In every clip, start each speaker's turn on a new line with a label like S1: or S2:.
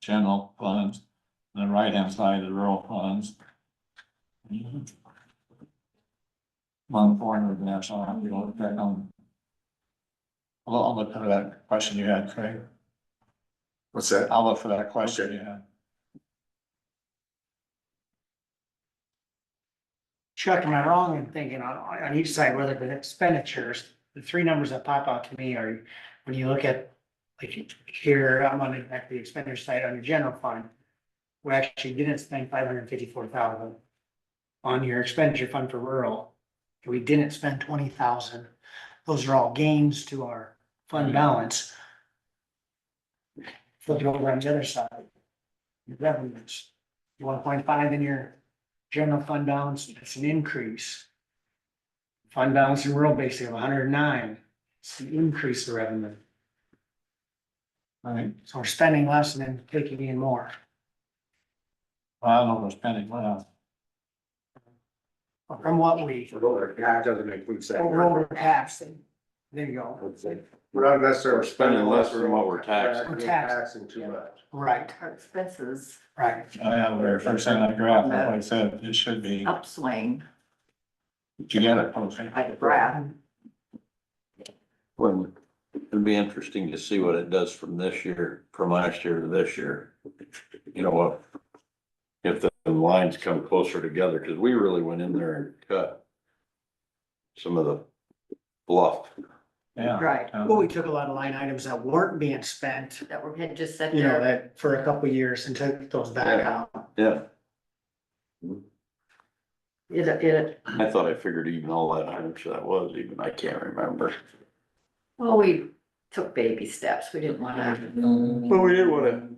S1: general funds, and the right-hand side is rural funds. On four hundred national, I'll be looking back on. Well, I'll look for that question you had, Craig.
S2: What's that?
S1: I'll look for that question you had.
S3: Chuck, am I wrong in thinking on, on each side, whether the expenditures, the three numbers that pop out to me are, when you look at, like, here, I'm on the, at the expenditure side on your general fund, we actually didn't spend five hundred and fifty-four thousand on your expenditure fund for rural. and We didn't spend twenty thousand. Those are all gains to our fund balance. Flip it over on the other side. Your revenues, one point five in your general fund balance, it's an increase. Fund balance in rural basically of hundred and nine, it's an increase in revenue,
S1: All right,
S3: so we're spending less and then taking in more.
S1: well, I don't know if it's pending, well,
S3: From what we,
S2: That doesn't make good sense.
S3: overall taxing, there you go,
S2: We're not necessarily
S4: spending less than what we're taxing.
S3: We're taxing.
S2: Taxing too much.
S3: right,
S5: our expenses
S3: right,
S1: I have the very first thing on the graph, like I said, it should be,
S5: upswing
S1: did you get it, okay?
S5: by the graph.
S4: Well, it'd be interesting to see what it does from this year, from last year to this year. You know what? If the lines come closer together, because we really went in there and cut some of the bluff.
S1: Yeah.
S5: Right,
S1: Um,
S3: well, we took a lot of line items that weren't being spent,
S5: that we had just said
S3: you know,
S5: there,
S3: that for a couple of years and took those back out.
S4: Yeah,
S5: it, it,
S4: I thought I figured even all that, how much that was even, I can't remember.
S5: well, we took baby steps, we didn't wanna.
S4: Well, we didn't wanna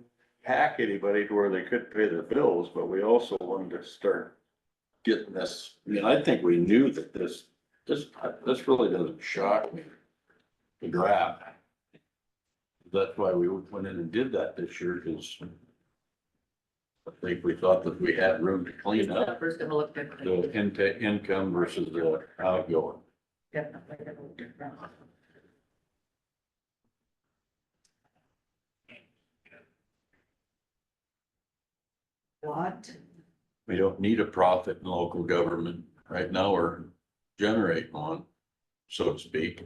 S4: hack anybody to where they couldn't pay their bills, but we also wanted to start getting this, I mean, I think we knew that this, this, this really doesn't shock me. The grab. That's why we went in and did that this year, cause I think we thought that we had room to
S5: These
S4: clean up
S5: numbers gonna look
S4: the
S5: different.
S4: intake, income versus the outgoing.
S5: Definitely gonna look different. What?
S4: We don't need a profit in local government. Right now, we're generating one, so to speak.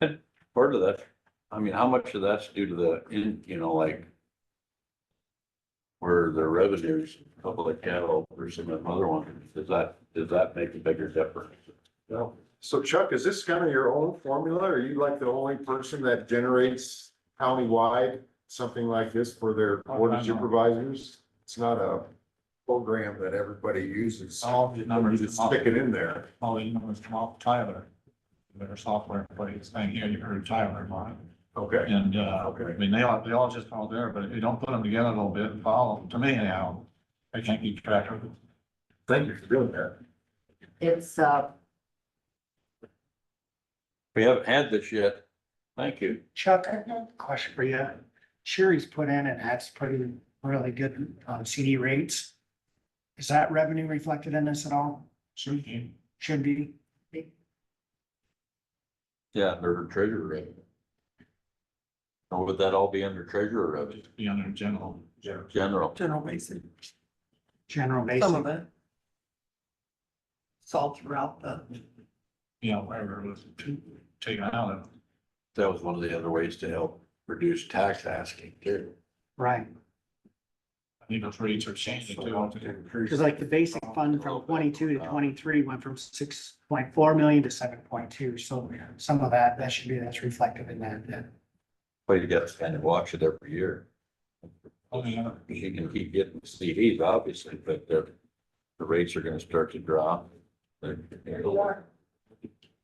S4: And Part of that, I mean, how much of that's due to the, in you know, like where the revenues, a couple of cattle or some of the other one, does that, does that make a bigger difference?
S2: No. So Chuck, is this kind of your own formula? Are you like the only person that generates countywide something like this for their board of supervisors? It's not a program that everybody uses.
S1: All these
S2: You
S1: numbers.
S2: just stick it in there.
S1: all these numbers from off Tyler. Their software plays, and here you heard Tyler, Mark,
S2: Okay.
S1: and, uh, I
S2: Okay.
S1: mean, they all, they all just all there, but if you don't put them together a little bit and follow, them, to me anyhow, I can't keep track of it.
S2: Thank you for doing that.
S5: It's, uh,
S4: We haven't had this yet. Thank you.
S3: Chuck, I have a question for you. Sherry's put in and that's pretty really good um, CD rates. Is that revenue reflected in this at all?
S1: Sure can.
S3: Should be.
S4: Yeah, under treasurer revenue. Or would that all be under treasurer revenue,
S1: Be under general, general.
S4: general?
S6: general basis,
S3: General
S6: some
S3: basic.
S6: of it. It's all throughout the,
S1: you know, whatever it was taken out of.
S4: That was one of the other ways to help reduce tax asking too.
S3: Right,
S1: I think those rates are changing too.
S3: because like the basic fund from twenty-two to twenty-three went from six point four million to seven point two, so some of that, that should be, that's reflected in that, that.
S4: Well, you gotta kind of watch it every year.
S1: Oh, yeah.
S4: You can keep getting CDs, obviously, but the, the rates are gonna start to drop. The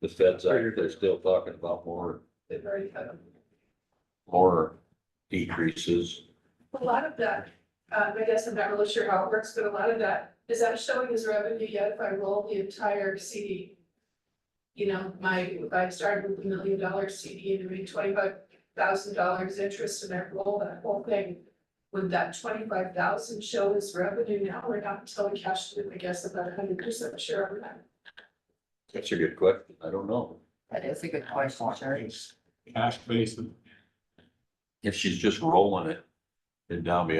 S4: feds, are- they're still talking about more. More decreases.
S7: A lot of that, um, I guess I'm not really sure how it works, but a lot of that, is that showing as revenue yet if I roll the entire CD? You know, my, if I started with a million dollar CD and made twenty-five thousand dollars interest and I roll that whole thing. Would that twenty-five thousand show as revenue now or not until we cash it in? I guess I'm not hundred percent sure on that.
S4: That's a good question. I don't know.
S5: that is a good question, Sherry.
S1: Cash basis.
S4: If she's just rolling it, it'd now be